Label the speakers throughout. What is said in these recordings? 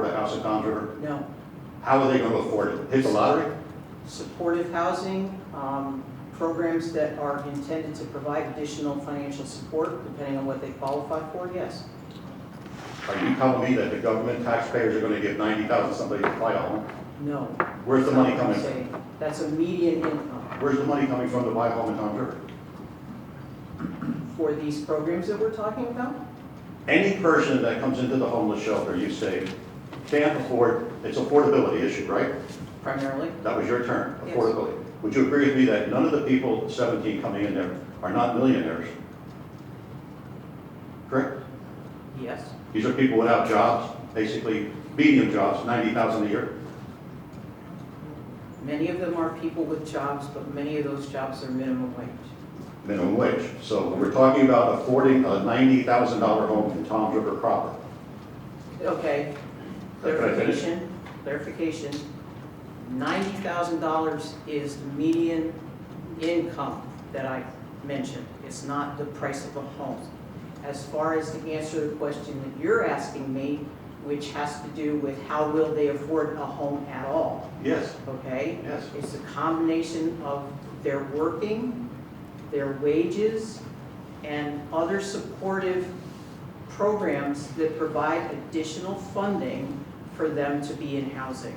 Speaker 1: Sasha Conjure,
Speaker 2: No,
Speaker 1: how are they gonna afford it? Hit the lottery?
Speaker 2: supportive housing, um, programs that are intended to provide additional financial support, depending on what they qualify for, yes.
Speaker 1: Are you telling me that the government taxpayers are gonna give ninety thousand somebody to buy a home?
Speaker 2: No.
Speaker 1: Where's the money
Speaker 2: That's not what
Speaker 1: coming
Speaker 2: I'm
Speaker 1: from?
Speaker 2: saying. That's a median income
Speaker 1: Where's the money coming from to buy a home in Conjure?
Speaker 2: for these programs that we're talking about.
Speaker 1: Any person that comes into the homeless shelter, you say, can't afford, it's affordability issue, right?
Speaker 2: primarily.
Speaker 1: That was your term,
Speaker 2: Yes.
Speaker 1: affordability. Would you agree with me that none of the people seventeen coming in there are not millionaires? Correct?
Speaker 2: Yes.
Speaker 1: These are people without jobs, basically medium jobs, ninety thousand a year.
Speaker 2: Many of them are people with jobs, but many of those jobs are minimum wage.
Speaker 1: minimum wage. So we're talking about affording a ninety thousand dollar home in Tom's River proper.
Speaker 2: Okay,
Speaker 1: Can I finish?
Speaker 2: clarification, clarification. Ninety thousand dollars is the median income that I mentioned. It's not the price of a home. As far as to answer the question that you're asking me, which has to do with how will they afford a home at all,
Speaker 1: Yes,
Speaker 2: okay?
Speaker 1: yes.
Speaker 2: It's a combination of their working, their wages, and other supportive programs that provide additional funding for them to be in housing.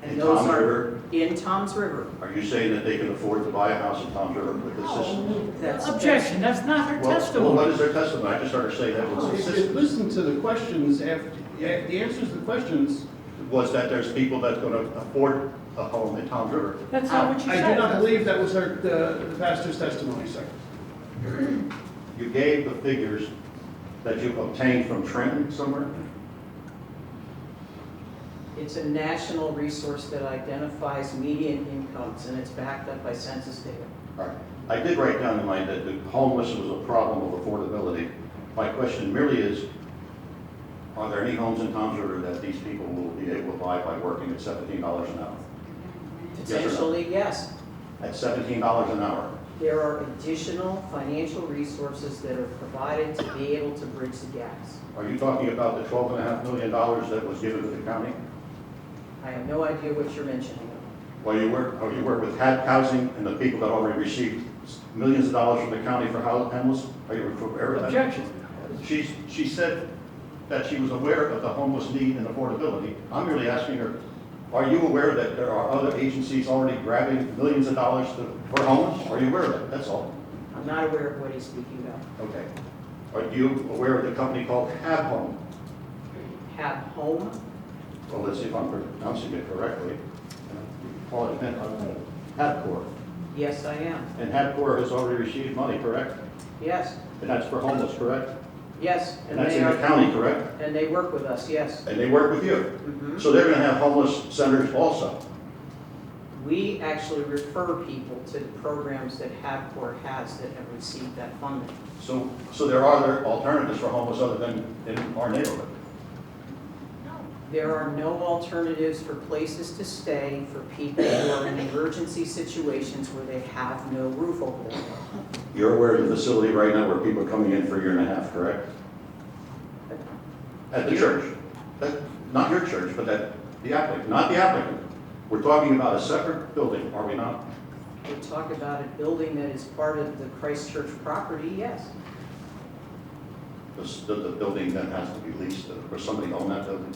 Speaker 1: In
Speaker 2: And those
Speaker 1: Tom's
Speaker 2: are
Speaker 1: River,
Speaker 2: in Tom's River.
Speaker 1: are you saying that they can afford to buy a house in Tom's River with this system?
Speaker 2: That's-
Speaker 3: Objection, that's not her
Speaker 1: Well, Well, what
Speaker 3: testimony.
Speaker 1: is their testimony? I just heard her say that was
Speaker 4: If you listen to the questions after, yeah, the answers to the questions,
Speaker 1: Was that there's people that's gonna afford a home in Tom's River?
Speaker 3: That's not what she
Speaker 4: I
Speaker 3: said.
Speaker 4: do not believe that was her, the the pastor's testimony, sir.
Speaker 1: You gave the figures that you obtained from Trenton somewhere?
Speaker 2: It's a national resource that identifies median incomes, and it's backed up by census data.
Speaker 1: All right. I did write down in mind that the homeless was a problem of affordability. My question merely is, are there any homes in Tom's River that these people will be able to buy by working at seventeen dollars an hour? Yes or no?
Speaker 2: Potentially, yes.
Speaker 1: At seventeen dollars an hour?
Speaker 2: There are additional financial resources that are provided to be able to bridge the gaps.
Speaker 1: Are you talking about the twelve and a half million dollars that was given to the county?
Speaker 2: I have no idea what you're mentioning.
Speaker 1: Well, you work, oh, you work with HAP housing and the people that already received millions of dollars from the county for hou- homeless? Are you aware of that?
Speaker 3: Objection.
Speaker 1: She, she said that she was aware of the homeless need and affordability. I'm merely asking her, are you aware that there are other agencies already grabbing millions of dollars to- for homeless? Are you aware of that? That's all.
Speaker 2: I'm not aware of what he's speaking about.
Speaker 1: Okay. Are you aware of the company called Cab Home?
Speaker 2: Have home,
Speaker 1: Well, let's see if I'm pronouncing it correctly. Call it HAPCor.
Speaker 2: yes, I am.
Speaker 1: And HAPCor has already received money, correct?
Speaker 2: Yes,
Speaker 1: And that's for homeless, correct?
Speaker 2: yes.
Speaker 1: And that's
Speaker 2: they
Speaker 1: in the
Speaker 2: are-
Speaker 1: county, correct?
Speaker 2: And they work with us, yes.
Speaker 1: And they work with you.
Speaker 2: Mhm.
Speaker 1: So they're going to have homeless centers also.
Speaker 2: We actually refer people to the programs that HABCOR has that have received that funding.
Speaker 1: So, so there are other alternatives for homeless other than in our neighborhood?
Speaker 2: There are no alternatives for places to stay for people who are in emergency situations where they have no roof over their head.
Speaker 1: You're aware of the facility right now where people are coming in for a year and a half, correct? At the church? That, not your church, but that, the applicant, not the applicant. We're talking about a separate building, are we not?
Speaker 2: We talk about a building that is part of the Christchurch property, yes.
Speaker 1: The, s- the- the building that has to be leased, or somebody own that building?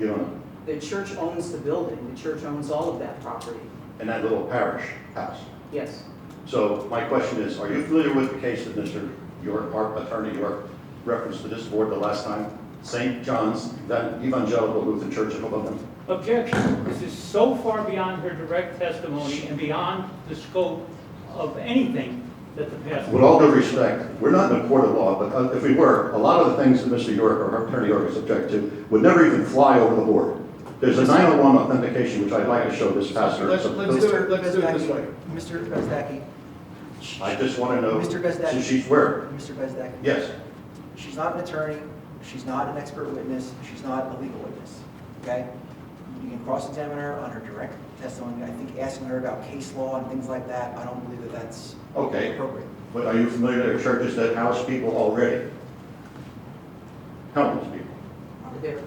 Speaker 1: You own it?
Speaker 2: The church owns the building, the church owns all of that property,
Speaker 1: And that little parish house.
Speaker 2: yes.
Speaker 1: So my question is, are you familiar with the case that Mr. York, our attorney York, referenced to this board the last time? St. John's that Evangelical Lutheran Church in Hoboken?
Speaker 3: Objection. This is so far beyond her direct testimony and beyond the scope of anything that the pastor.
Speaker 1: With all due respect, we're not in a court of law, but uh, if we were, a lot of the things that Mr. York or Attorney York is object to would never even fly over the board. There's a 901 authentication, which I'd like to show this pastor.
Speaker 4: Let's, let's do it, let's do it this way.
Speaker 5: Mr. Bezdaki,
Speaker 1: I just want to know,
Speaker 5: Mr. Bezdek.
Speaker 1: since she's where?
Speaker 5: Mr. Bezdaki,
Speaker 1: Yes,
Speaker 5: she's not an attorney, she's not an expert witness, she's not a legal witness, okay? You can cross-examine her on her direct testimony, I think asking her about case law and things like that, I don't believe that that's
Speaker 1: okay.
Speaker 5: appropriate.
Speaker 1: But are you familiar with churches that house people already? Homeless people.
Speaker 2: There,